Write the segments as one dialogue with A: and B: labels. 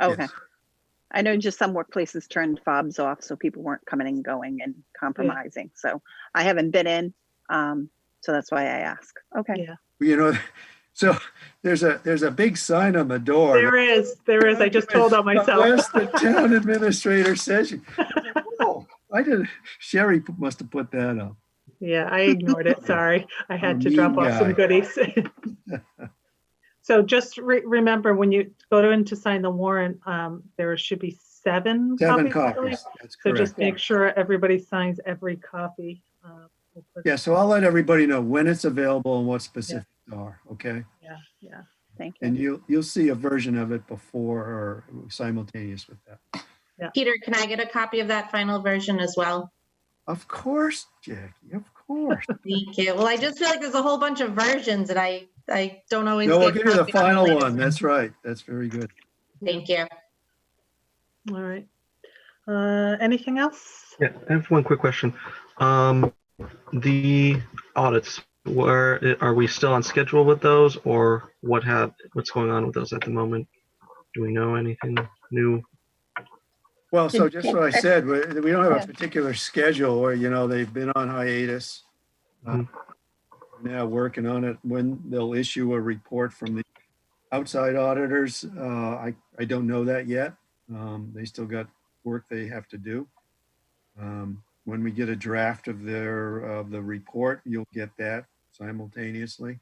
A: Okay.
B: Yes.
A: I know just some workplaces turned fobs off so people weren't coming and going and compromising. So I haven't been in. Um, so that's why I ask. Okay.
C: Yeah.
B: You know, so there's a, there's a big sign on the door.
C: There is, there is. I just told on myself.
B: West, the town administrator says, you- Whoa, I did, Sherry must have put that up.
C: Yeah, I ignored it. Sorry. I had to
B: Mean
C: drop off some
B: guy.
C: goodies. So just re- remember when you go to in to sign the warrant, um, there should be seven.
B: Seven
C: copies, I believe.
B: copies, that's
C: So just
B: correct.
C: make sure everybody signs every copy. uh, we'll put-
B: Yeah, so I'll let everybody know when it's available and what specifics are, okay?
C: Yeah, yeah.
A: Thank you.
B: And you'll, you'll see a version of it before or simultaneous with that.
D: Peter, can I get a copy of that final version as well?
B: Of course, Jackie, of course.
D: Thank you. Well, I just feel like there's a whole bunch of versions and I, I don't always.
B: No, we'll
D: get
B: give you the
D: copied on
B: final
D: latest.
B: one, that's right, that's very good.
D: Thank you.
C: All right. Uh, anything else?
E: Yeah, I have one quick question. Um, the audits, where are we still on schedule with those, or what have what's going on with those at the moment? Do we know anything new?
B: Well, so just what I said, we we don't have
A: Yeah.
B: a particular schedule or, you know, they've been on hiatus. Uh,
E: Mhm.
B: Now working on it, when they'll issue a report from the outside auditors, uh, I, I don't know that yet. Um, They still got work they have to do. Um, When we get a draft of their, of the report, you'll get that simultaneously.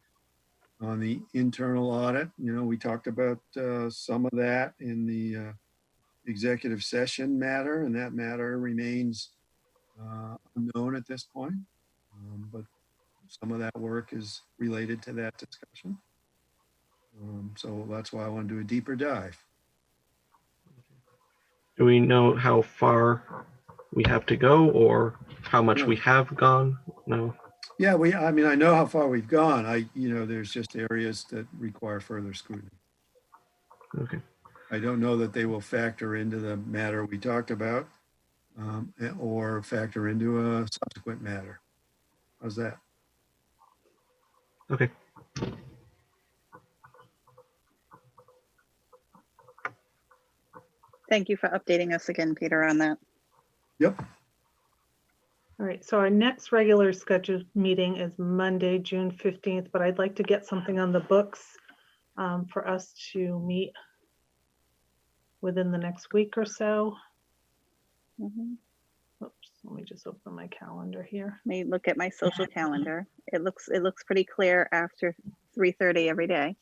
B: On the internal audit, you know, we talked about uh, some of that in the uh, executive session matter, and that matter remains uh, unknown at this point. Um, But some of that work is related to that discussion. Um, So that's why I want to do a deeper dive.
E: Do we know how far we have to go, or how much we have gone? No.
B: Yeah, we, I mean, I know how far we've gone. I, you know, there's just areas that require further scrutiny.
E: Okay.
B: I don't know that they will factor into the matter we talked about um, or factor into a subsequent matter. How's that?
E: Okay.
A: Thank you for updating us again, Peter, on that.
B: Yep,
C: All right, so our next regular scheduled meeting is Monday, June fifteenth, but I'd like to get something on the books um, for us to meet within the next week or so.
A: Mhm.
C: Oops, let me just open my calendar here.
A: Let me look at my social calendar. It looks, it looks pretty clear after 3:30 every day.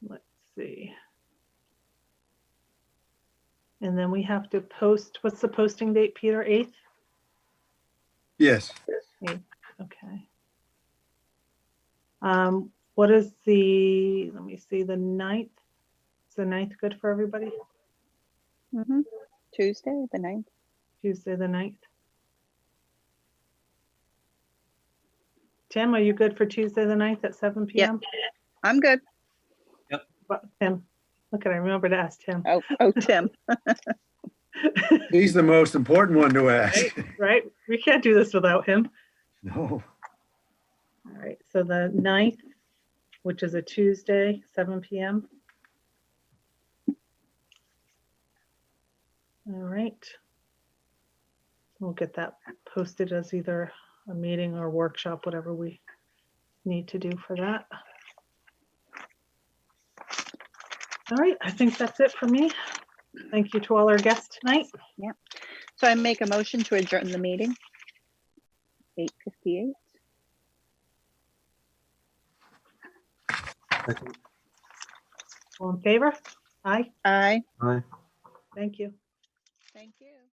C: Let's see. And then we have to post, what's the posting date, Peter? Eighth?
B: yes.
C: Okay. Um, what is the, let me see, the ninth? Is the ninth good for everybody?
A: Mhm. Tuesday, the ninth.
C: Tuesday, the ninth? Tim, are you good for Tuesday, the ninth at seven
A: Yeah.
C: PM?
A: I'm good.
C: What- Tim, look at, I remember to ask Tim,
A: Oh, oh, Tim.
B: He's the most important one to ask.
C: right? We can't do this without him.
B: No,
C: All right, so the ninth, which is a Tuesday, seven PM. All right. We'll get that posted as either a meeting or workshop, whatever we need to do for that. All right, I think that's it for me. Thank you to all our guests tonight.
A: So I make a motion to adjourn the meeting. 8:58.
C: All in favor? Aye,
A: Aye.
E: Hi.
C: thank you.
A: Thank you.